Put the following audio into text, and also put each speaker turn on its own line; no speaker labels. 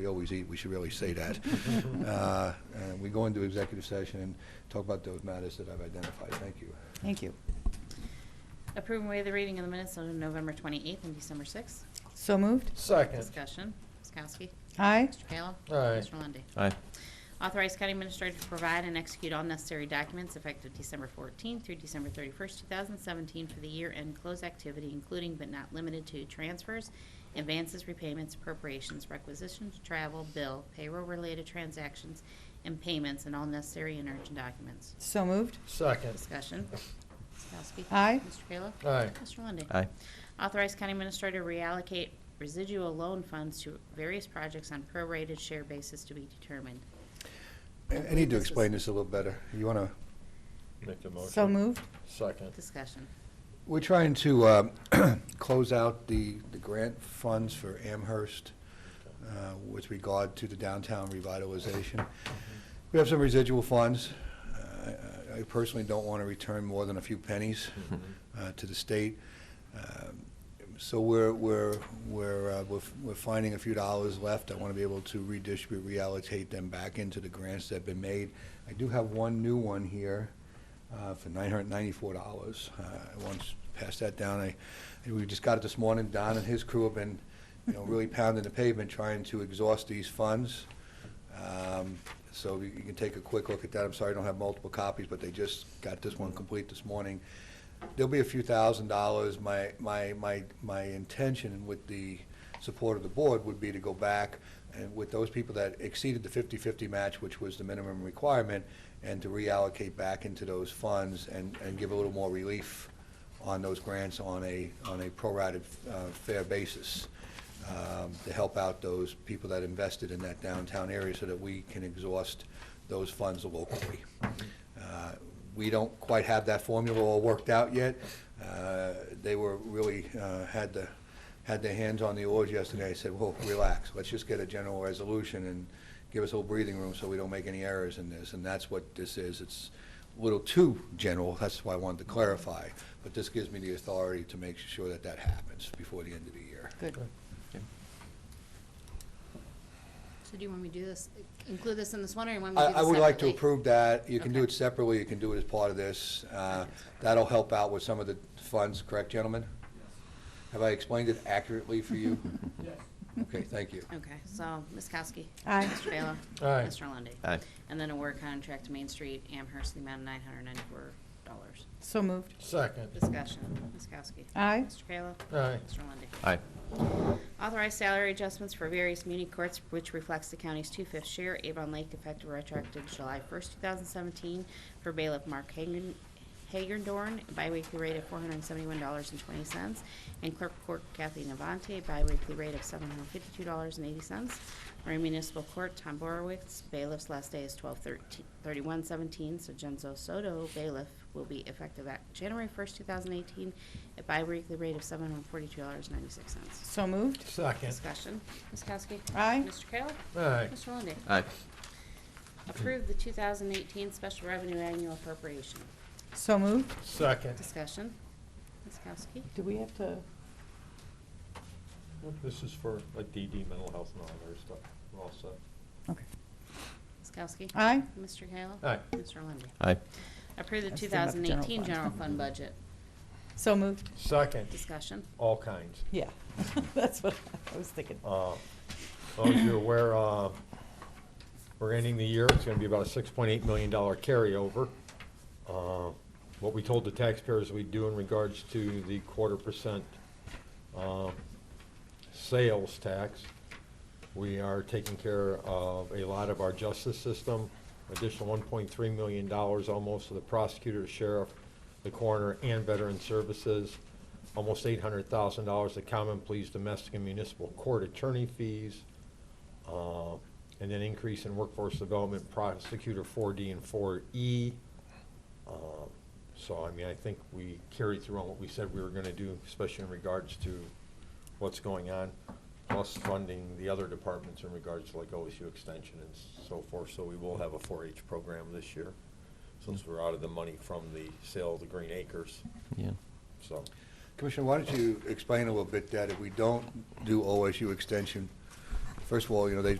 we always eat, we should really say that. Uh, And we go into executive session and talk about those matters that I've identified. Thank you.
Thank you.
Approve and waive the reading of the minutes on November 28th and December 6th.
So moved.
Second.
Discussion. Ms. Kowski.
Aye.
Mr. Kayla.
Aye.
Mr. Lundey.
Aye.
Authorize county administrator to provide and execute all necessary documents effective December 14th through December 31st, 2017 for the year-end close activity, including but not limited to transfers, advances, repayments, appropriations, requisitions, travel, bill, payroll-related transactions, and payments, and all necessary and urgent documents.
So moved.
Second.
Discussion. Ms. Kowski.
Aye.
Mr. Kayla.
Aye.
Mr. Lundey.
Aye.
Authorize County Administrator reallocate residual loan funds to various projects on prorated share basis to be determined.
I I need to explain this a little better. You want to
Make the
So moved.
Second.
Discussion.
We're trying to uh, close out the, the grant funds for Amherst uh, with regard to the downtown revitalization. We have some residual funds. Uh, I I personally don't want to return more than a few pennies uh, to the state. Um, So we're, we're, we're, uh, we're f- we're finding a few dollars left. I want to be able to redistribute, reallocate them back into the grants that have been made. I do have one new one here uh, for nine hundred ninety-four dollars. Uh, I once passed that down. I, and we just got it this morning. Don and his crew have been, you know, really pounding the pavement trying to exhaust these funds. Um, So you you can take a quick look at that. I'm sorry I don't have multiple copies, but they just got this one complete this morning. There'll be a few thousand dollars. My, my, my, my intention with the support of the board would be to go back and with those people that exceeded the 50-50 match, which was the minimum requirement, and to reallocate back into those funds and, and give a little more relief on those grants on a, on a prorated, uh, fair basis, um, to help out those people that invested in that downtown area so that we can exhaust those funds locally. Uh, We don't quite have that formula all worked out yet. Uh, They were really, uh, had the, had their hands on the oars yesterday. I said, well, relax, let's just get a general resolution and give us a little breathing room so we don't make any errors in this. And that's what this is. It's a little too general, that's why I wanted to clarify. But this gives me the authority to make sure that that happens before the end of the year.
Good.
So do you want me to do this, include this in this one, or you want me
I,
to do this
I would like to
separately?
approve that. You can do
Okay.
it separately, you can do it as part of this. Uh, That'll help out with some of the funds, correct, gentlemen? Have I explained it accurately for you? Yes. Okay, thank you.
Okay, so Ms. Kowski.
Aye.
Mr. Kayla.
Aye.
Mr. Lundey.
Aye.
And then award contract to Main Street Amherst, in the amount of $994.
So moved.
Second.
Discussion. Ms. Kowski.
Aye.
Mr. Kayla.
Aye.
Mr. Lundey.
Aye.
Authorize salary adjustments for various muni courts, which reflects the county's two-fifth share, Avon Lake effective retroactive July 1st, 2017, for bailiff Mark Hagen- Hagendorn, biweekly rate of $471.20, and clerk court Kathy Navante, biweekly rate of $752.80. Marine Municipal Court, Tom Borowitz, bailiff's last day is 12/31/17, so Genzo Soto, bailiff, will be effective at January 1st, 2018, at biweekly rate of $742.96.
So moved.
Second.
Discussion. Ms. Kowski.
Aye.
Mr. Kayla.
Aye.
Mr. Lundey.
Aye.
Approve the 2018 Special Revenue Annual Appropriation.
So moved.
Second.
Discussion. Ms. Kowski.
Do we have to?
This is for like DD, mental health and all that other stuff, we're all set.
Okay.
Ms. Kowski.
Aye.
Mr. Kayla.
Aye.
Mr. Lundey.
Aye.
Approve the
That's the general
2018
fund.
General Fund Budget.
So moved.
Second.
Discussion.
All kinds.
Yeah. That's what I was thinking.
Uh, As long as you're aware, uh, we're ending the year, it's gonna be about a six point eight million dollar carryover. Uh, What we told the taxpayers we do in regards to the quarter percent uh, sales tax, we are taking care of a lot of our justice system, additional one point three million dollars almost to the prosecutor, sheriff, the coroner, and veteran services, almost eight hundred thousand dollars to common pleas, domestic and municipal court attorney fees, uh, and then increase in workforce development prosecutor four D and four E. Uh, So, I mean, I think we carried through on what we said we were gonna do, especially in regards to what's going on, plus funding the other departments in regards to like OSU extension and so forth, so we will have a four-H program this year, since we're out of the money from the sale of the green acres,
Yeah.
so.
Commissioner, why don't you explain a little bit that if we don't do OSU extension, first of all, you know, they